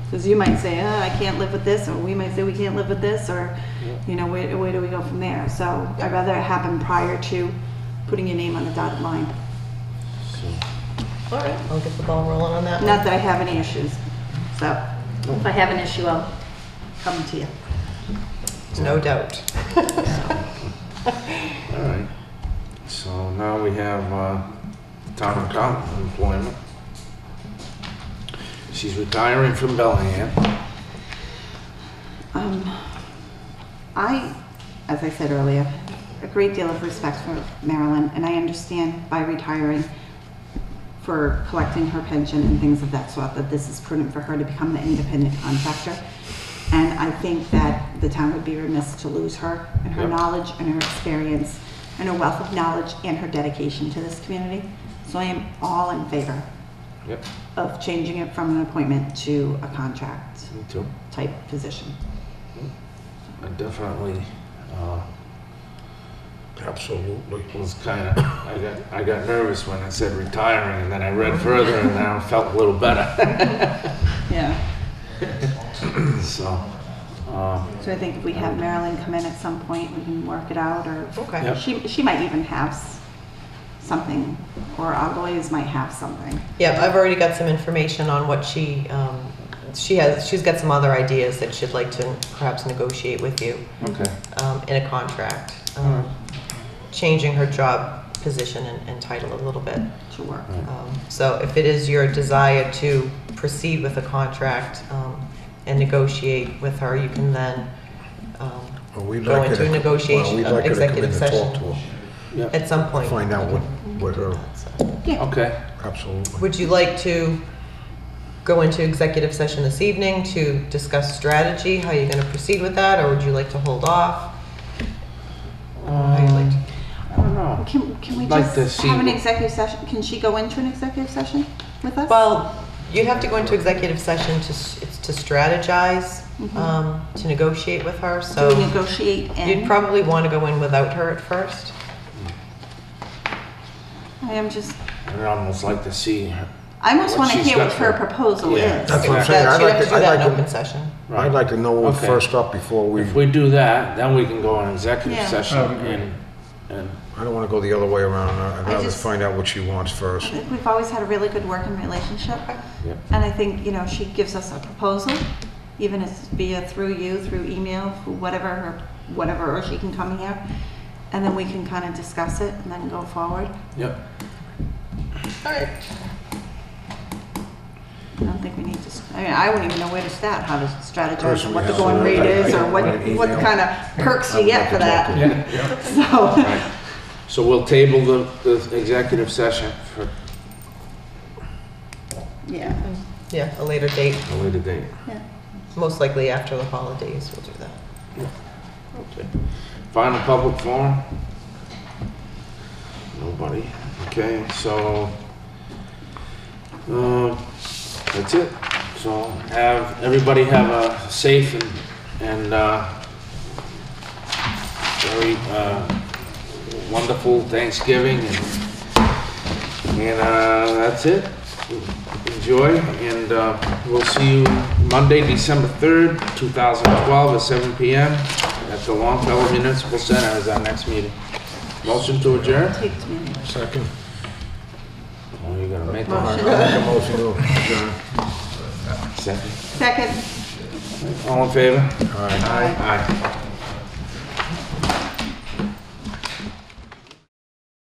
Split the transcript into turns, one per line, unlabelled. Because you might say, oh, I can't live with this, or we might say we can't live with this, or, you know, where, where do we go from there? So I'd rather it happen prior to putting your name on the dotted line.
All right, I'll get the ball rolling on that one.
Not that I have any issues, so if I have an issue, I'll come to you.
No doubt.
All right. So now we have uh, town accountant employment. She's retiring from Bellingham.
Um, I, as I said earlier, have a great deal of respect for Marilyn, and I understand by retiring for collecting her pension and things of that sort, that this is prudent for her to become the independent contractor. And I think that the town would be remiss to lose her and her
Yep.
knowledge and her experience and her wealth of knowledge and her dedication to this community. So I am all in favor
Yep,
of changing it from an appointment to a contract
me too.
type position.
I definitely uh,
Absolutely.
was kind of, I got, I got nervous when it said retiring, and then I read further, and now I felt a little better.
Yeah.
So, um,
So I think if we have Marilyn come in at some point, we can work it out, or
Okay.
Yep.
she, she might even have s- something, or Eloise might have something.
Yeah, I've already got some information on what she, um, she has, she's got some other ideas that she'd like to perhaps negotiate with you
okay.
um, in a contract. um, Changing her job position and and title a little bit.
to work.
Um, So if it is your desire to proceed with a contract um, and negotiate with her, you can then um,
Well, we'd
go
like her
into
to- well,
negotiation,
we'd like her to come in
executive
and talk
session
to us,
Yeah,
at some point.
Find out what, what her,
okay.
absolutely.
Would you like to go into executive session this evening to discuss strategy, how you're going to proceed with that, or would you like to hold off? How you
Uh,
like to-
I don't know.
Can, can we
Like to
just
see
have an
what-
executive session? Can she go into an executive session with us?
Well, you'd have to go into executive session to, s- it's to strategize, um, to negotiate with her,
Do we
so
negotiate
um, you'd
and,
probably want to go in without her at first.
I am just,
I'd almost like to see her.
I almost
What
want to
she's
hear
got
what her
for-
proposal
Yeah.
is.
That's what I'm
That-
saying, I'd
She'd
like
have to
to,
do
I'd
that in open
like to,
session.
I'd like to know
Okay.
first up before we,
If we do that, then we can go on executive
Yeah.
session
I would agree.
and, and,
I don't want to go the other way around. I'd
I
rather
just-
find out what she wants
I
first.
think we've always had a really good working relationship.
Yep.
And I think, you know, she gives us a proposal, even if it's via through you, through email, through whatever, her whatever, or she can come here. And then we can kind of discuss it and then go forward.
yep.
All right.
I don't think we need to, s- I mean, I wouldn't even know where to start, how to strategize and
Personally,
what the
yeah.
going rate is or what,
Or an
what
email.
kind of perks you get for that.
Yeah.
So,
Right. So we'll table the, the executive session for
yeah.
Yeah, a later date,
a later date.
yeah.
most likely after the holidays, we'll do that.
Okay. Final public forum? Nobody. Okay, so, um, that's it. So have, everybody have a safe and, and, uh, very, uh, wonderful Thanksgiving and, and, uh, that's it. Enjoy and, uh, we'll see you Monday, December third, two thousand twelve at seven PM at the Longfellow Municipal Center is our next meeting. Motion to adjourn?
Take to me.
Second.
Oh, you gotta make
All
one.
right, I'll make a motion to adjourn.
Second.
Second.
All in favor?
All right.
Aye. Aye.